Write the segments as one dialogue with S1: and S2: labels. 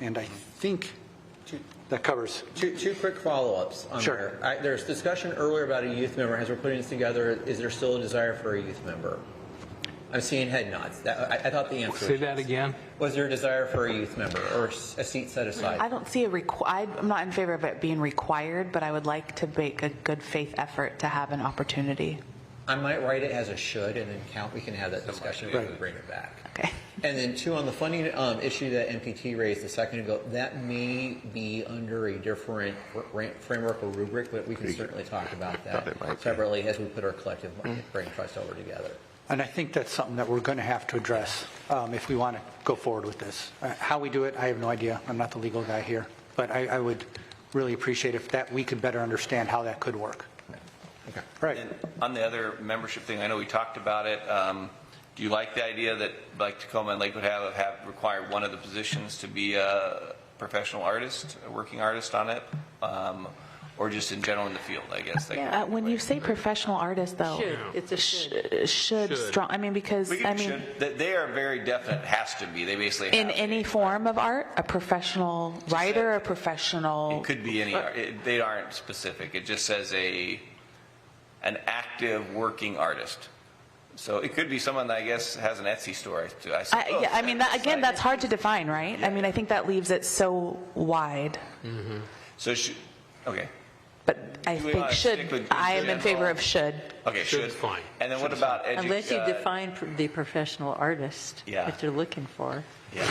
S1: And I think that covers.
S2: Two, two quick follow-ups. on
S1: Sure.
S2: there. I- There's discussion earlier about a youth member. As we're putting this together, is there still a desire for a youth member? I'm seeing head nods. That, I, I thought the answer.
S3: Say
S2: was
S3: that
S2: yes.
S3: again.
S2: Was there a desire for a youth member or s- a seat set
S4: I
S2: aside?
S4: don't see a requ- I- I'm not in favor of it being required, but I would like to make a good faith effort to have an opportunity.
S2: I might write it as a should and then count, we can have that discussion and we bring it back.
S4: Okay.
S2: And then two, on the funding um, issue that MPT raised a second ago, that may be under a different ra- framework or rubric, but we can certainly talk about that separately as we put our collective brain trust over together.
S1: And I think that's something that we're going to have to address um, if we want to go forward with this. Uh, How we do it, I have no idea. I'm not the legal guy here. But I, I would really appreciate if that, we could better understand how that could work. Right.
S5: And on the other membership thing, I know we talked about it. Um, Do you like the idea that, like Tacoma and Lakewood have, have required one of the positions to be a professional artist, a working artist on it? Um, Or just in general in the field, I guess? like-
S4: Uh, when you say professional artist, though,
S6: Should. It's a should.
S4: sh- uh, should strong. I mean, because
S5: We
S4: I
S5: can,
S4: mean,
S5: should- they- they are very definite, has to be. They basically have
S4: in
S5: to.
S4: any form of art, a professional writer, a professional.
S5: It could be any, art. It- they aren't specific. It just says a, an active working artist. So it could be someone that I guess has an Etsy store, I I
S4: I,
S5: suppose.
S4: yeah, I mean, that, again, that's hard to define, right? I mean, I think that leaves it so wide.
S5: So should, okay,
S4: But I
S5: Do we
S4: think
S5: wanna
S4: should.
S5: stick with
S4: I am in favor of should.
S5: okay, should.
S3: Should's fine.
S5: And then what about edu?
S6: Unless you
S5: uh,
S6: define pr- the professional artist
S5: Yeah.
S6: that you're looking for.
S5: Yeah,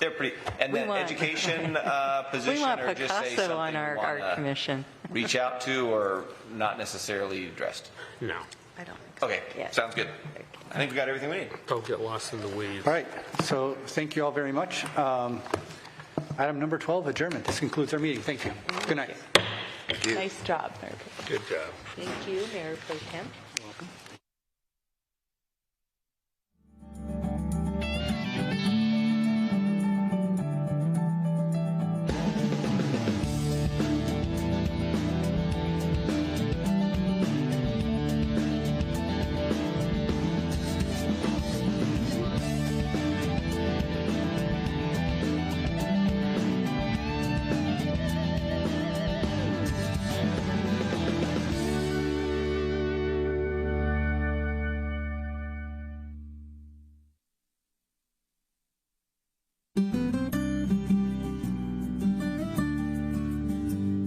S5: they're pretty, and
S6: We
S5: then
S6: want-
S5: education uh,
S6: We
S5: position
S6: want
S5: or just say something
S6: Picasso on
S5: you
S6: our art
S5: wanna
S6: commission.
S5: reach out to or not necessarily addressed.
S3: No,
S6: I don't.
S5: Okay,
S6: Yeah.
S5: sounds good. I think we got everything we need.
S3: don't get lost in the weeds.
S1: All right. So thank you all very much. Um, Item number 12, adjournment. This concludes our meeting. Thank you. Good night.
S4: Nice job, Mayor.
S3: Good job.
S6: Thank you, Mayor Pro Tem.